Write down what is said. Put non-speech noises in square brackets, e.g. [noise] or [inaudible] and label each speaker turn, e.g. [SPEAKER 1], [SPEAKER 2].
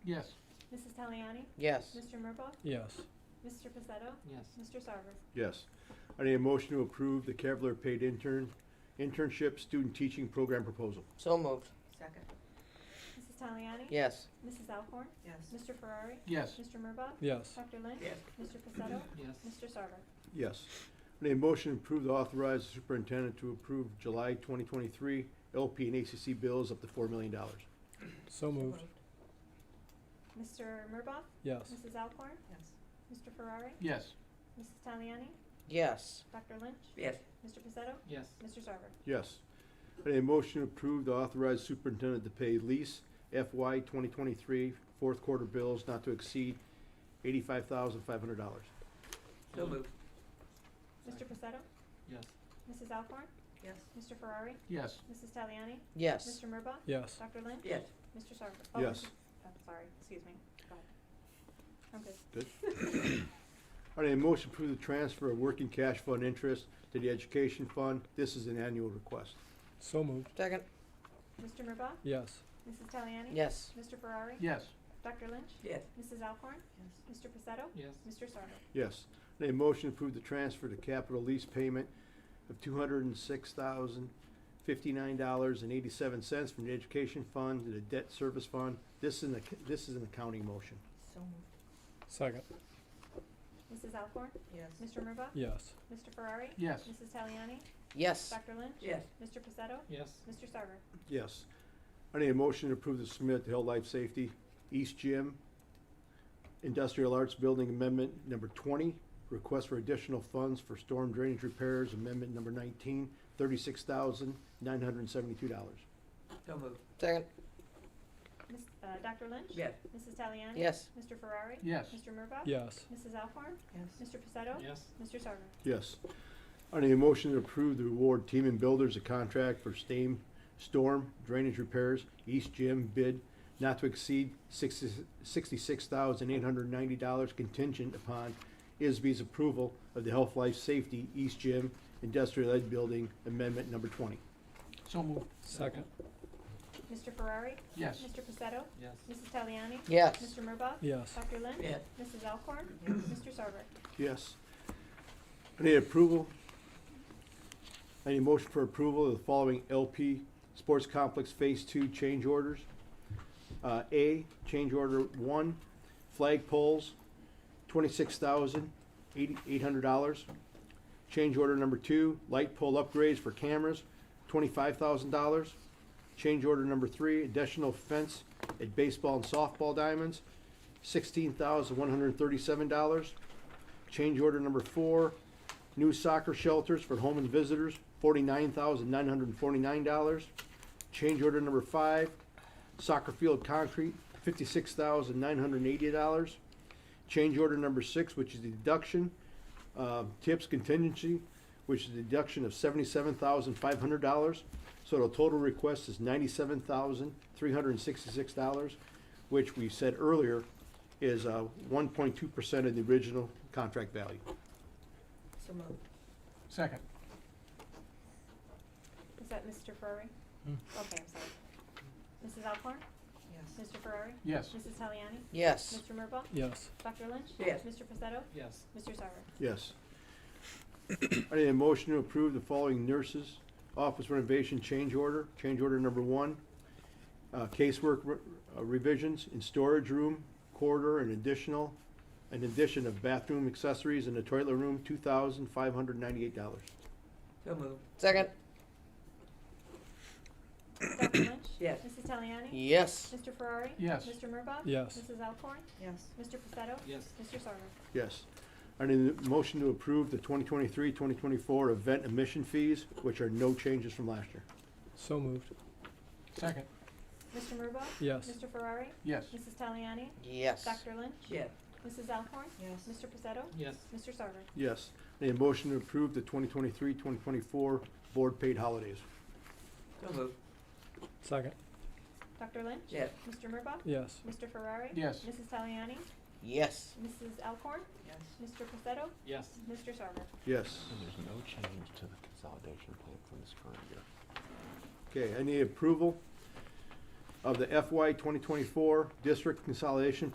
[SPEAKER 1] Yes.
[SPEAKER 2] Mrs. Taliani?
[SPEAKER 3] yes,
[SPEAKER 2] Mr. Murbaugh?
[SPEAKER 4] yes,
[SPEAKER 2] Mr. Pacetto?
[SPEAKER 1] Yes.
[SPEAKER 2] Mr. Sarver?
[SPEAKER 5] Yes. I need a motion to approve the Kevlar paid intern, internship student teaching program proposal.
[SPEAKER 3] so moved,
[SPEAKER 6] Second,
[SPEAKER 2] Mrs. Taliani?
[SPEAKER 3] yes,
[SPEAKER 2] Mrs. Alcorn?
[SPEAKER 6] yes.
[SPEAKER 2] Mr. Ferrari?
[SPEAKER 1] Yes.
[SPEAKER 2] Mr. Murbaugh?
[SPEAKER 4] yes,
[SPEAKER 2] Dr. Lynch?
[SPEAKER 6] Yes.
[SPEAKER 2] Mr. Pacetto?
[SPEAKER 1] Yes.
[SPEAKER 2] Mr. Sarver?
[SPEAKER 5] Yes. I need a motion to approve the authorized superintendent to approve July 2023 LP and ACC bills up to $4 million.
[SPEAKER 4] so moved,
[SPEAKER 2] Mr. Murbaugh?
[SPEAKER 4] yes,
[SPEAKER 2] Mrs. Alcorn?
[SPEAKER 6] Yes.
[SPEAKER 2] Mr. Ferrari?
[SPEAKER 1] Yes.
[SPEAKER 2] Mrs. Taliani?
[SPEAKER 3] yes,
[SPEAKER 2] Dr. Lynch?
[SPEAKER 6] Yes.
[SPEAKER 2] Mr. Pacetto?
[SPEAKER 1] Yes.
[SPEAKER 2] Mr. Sarver?
[SPEAKER 5] Yes. I need a motion to approve the authorized superintendent to pay lease FY 2023 fourth quarter bills not to exceed $85,500.
[SPEAKER 6] So moved.
[SPEAKER 2] Mr. Pacetto?
[SPEAKER 1] Yes.
[SPEAKER 2] Mrs. Alcorn?
[SPEAKER 6] Yes.
[SPEAKER 2] Mr. Ferrari?
[SPEAKER 1] Yes.
[SPEAKER 2] Mrs. Taliani?
[SPEAKER 3] yes,
[SPEAKER 2] Mr. Murbaugh?
[SPEAKER 4] yes,
[SPEAKER 2] Dr. Lynch?
[SPEAKER 6] Yes.
[SPEAKER 2] Mr. Sarver? Oh,
[SPEAKER 5] Yes.
[SPEAKER 2] I'm sorry, excuse me. Go ahead. I'm good.
[SPEAKER 5] I need a motion to approve the transfer of working cash fund interest to the education fund. This is an annual request.
[SPEAKER 4] so moved,
[SPEAKER 3] second,
[SPEAKER 2] Mr. Murbaugh?
[SPEAKER 4] yes,
[SPEAKER 2] Mrs. Taliani?
[SPEAKER 3] yes,
[SPEAKER 2] Mr. Ferrari?
[SPEAKER 1] Yes.
[SPEAKER 2] Dr. Lynch?
[SPEAKER 6] Yes.
[SPEAKER 2] Mrs. Alcorn?
[SPEAKER 6] Yes.
[SPEAKER 2] Mr. Pacetto?
[SPEAKER 1] Yes.
[SPEAKER 2] Mr. Sarver?
[SPEAKER 5] Yes. I need a motion to approve the transfer to capital lease payment of two hundred and six thousand fifty-nine dollars and eighty-seven cents from the education fund to the debt service fund. This is an, ac- this is an accounting motion.
[SPEAKER 6] So moved.
[SPEAKER 4] second,
[SPEAKER 2] Mrs. Alcorn?
[SPEAKER 6] Yes.
[SPEAKER 2] Mr. Murbaugh?
[SPEAKER 4] yes,
[SPEAKER 2] Mr. Ferrari?
[SPEAKER 1] Yes.
[SPEAKER 2] Mrs. Taliani?
[SPEAKER 3] yes,
[SPEAKER 2] Dr. Lynch?
[SPEAKER 6] Yes.
[SPEAKER 2] Mr. Pacetto?
[SPEAKER 1] Yes.
[SPEAKER 2] Mr. Sarver?
[SPEAKER 5] Yes. I need a motion to approve the submit to Health Life Safety East Gym Industrial Arts Building Amendment Number twenty, request for additional funds for storm drainage repairs, amendment number nineteen, thirty-six thousand nine hundred and seventy-two dollars.
[SPEAKER 6] So moved.
[SPEAKER 3] second,
[SPEAKER 2] Miss, uh, Dr. Lynch?
[SPEAKER 6] Yes.
[SPEAKER 2] Mrs. Taliani?
[SPEAKER 3] yes,
[SPEAKER 2] Mr. Ferrari?
[SPEAKER 1] Yes.
[SPEAKER 2] Mr. Murbaugh?
[SPEAKER 4] yes,
[SPEAKER 2] Mrs. Alcorn?
[SPEAKER 6] Yes.
[SPEAKER 2] Mr. Pacetto?
[SPEAKER 1] Yes.
[SPEAKER 2] Mr. Sarver?
[SPEAKER 5] Yes. I need a motion to approve the award Team and Builders a contract for steam, storm drainage repairs, East Gym bid not to exceed sixty-six thousand eight hundred ninety dollars contingent upon ISB's approval of the Health Life Safety East Gym Industrial Ed Building Amendment Number Twenty.
[SPEAKER 1] So moved.
[SPEAKER 4] second,
[SPEAKER 2] Mr. Ferrari?
[SPEAKER 1] Yes.
[SPEAKER 2] Mr. Pacetto?
[SPEAKER 1] Yes.
[SPEAKER 2] Mrs. Taliani?
[SPEAKER 3] yes,
[SPEAKER 2] Mr. Murbaugh?
[SPEAKER 4] yes,
[SPEAKER 2] Dr. Lynch?
[SPEAKER 6] Yes.
[SPEAKER 2] Mrs. Alcorn?
[SPEAKER 6] Yes.
[SPEAKER 2] Mr. Sarver?
[SPEAKER 5] Yes. I need approval. I need a motion for approval of the following LP Sports Complex Phase Two change orders. Uh, A, change order one, flag poles, twenty-six thousand, eighty, eight hundred dollars. Change order number two, light pole upgrades for cameras, twenty-five thousand dollars. Change order number three, additional fence at baseball and softball diamonds, sixteen thousand, one hundred and thirty-seven dollars. Change order number four, new soccer shelters for home and visitors, forty-nine thousand nine hundred and forty-nine dollars. Change order number five, soccer field concrete, fifty-six thousand nine hundred and eighty dollars. Change order number six, which is the deduction, uh, tips contingency, which is a deduction of seventy-seven thousand five hundred dollars. So the total request is ninety-seven thousand three hundred and sixty-six dollars, which we said earlier is uh, one point two percent of the original contract value.
[SPEAKER 6] So moved.
[SPEAKER 1] Second.
[SPEAKER 2] Is that Mr. Ferrari?
[SPEAKER 4] Hmm.
[SPEAKER 2] Okay, I'm sorry. Mrs. Alcorn?
[SPEAKER 6] Yes.
[SPEAKER 2] Mr. Ferrari?
[SPEAKER 1] Yes.
[SPEAKER 2] Mrs. Taliani?
[SPEAKER 3] yes,
[SPEAKER 2] Mr. Murbaugh?
[SPEAKER 4] yes,
[SPEAKER 2] Dr. Lynch?
[SPEAKER 6] Yes.
[SPEAKER 2] Mr. Pacetto?
[SPEAKER 1] Yes.
[SPEAKER 2] Mr.
[SPEAKER 6] [clears throat]
[SPEAKER 2] Sarver?
[SPEAKER 5] Yes. I need a motion to approve the following nurses' office renovation change order. Change order number one, uh, casework re- uh, revisions in storage room, corridor, and additional, an addition of bathroom accessories in the toilet room, two thousand five hundred ninety-eight dollars.
[SPEAKER 6] So moved.
[SPEAKER 3] second,
[SPEAKER 2] Dr. Lynch?
[SPEAKER 6] Yes.
[SPEAKER 2] Mrs. Taliani?
[SPEAKER 3] yes,
[SPEAKER 2] Mr. Ferrari?
[SPEAKER 1] Yes.
[SPEAKER 2] Mr. Murbaugh?
[SPEAKER 4] yes,
[SPEAKER 2] Mrs. Alcorn?
[SPEAKER 6] Yes.
[SPEAKER 2] Mr. Pacetto?
[SPEAKER 1] Yes.
[SPEAKER 2] Mr. Sarver?
[SPEAKER 5] Yes. I need a motion to approve the 2023-2024 event admission fees, which are no changes from last year.
[SPEAKER 4] so moved,
[SPEAKER 1] Second.
[SPEAKER 2] Mr. Murbaugh?
[SPEAKER 4] yes,
[SPEAKER 2] Mr. Ferrari?
[SPEAKER 1] Yes.
[SPEAKER 2] Mrs. Taliani?
[SPEAKER 3] yes,
[SPEAKER 2] Dr. Lynch?
[SPEAKER 6] Yes.
[SPEAKER 2] Mrs. Alcorn?
[SPEAKER 6] Yes.
[SPEAKER 2] Mr. Pacetto?
[SPEAKER 1] Yes.
[SPEAKER 2] Mr. Sarver?
[SPEAKER 5] Yes. I Need a motion to approve the 2023-2024 board paid holidays.
[SPEAKER 6] So moved.
[SPEAKER 4] second,
[SPEAKER 2] Dr. Lynch?
[SPEAKER 6] Yes.
[SPEAKER 2] Mr. Murbaugh?
[SPEAKER 4] yes,
[SPEAKER 2] Mr. Ferrari?
[SPEAKER 1] Yes.
[SPEAKER 2] Mrs. Taliani?
[SPEAKER 3] yes,
[SPEAKER 2] Mrs. Alcorn?
[SPEAKER 6] Yes.
[SPEAKER 2] Mr. Pacetto?
[SPEAKER 1] Yes.
[SPEAKER 2] Mr. Sarver?
[SPEAKER 5] Yes.
[SPEAKER 7] And there's no change to the consolidation plan from this current year.
[SPEAKER 5] Okay, I need approval of the FY 2024 District Consolidation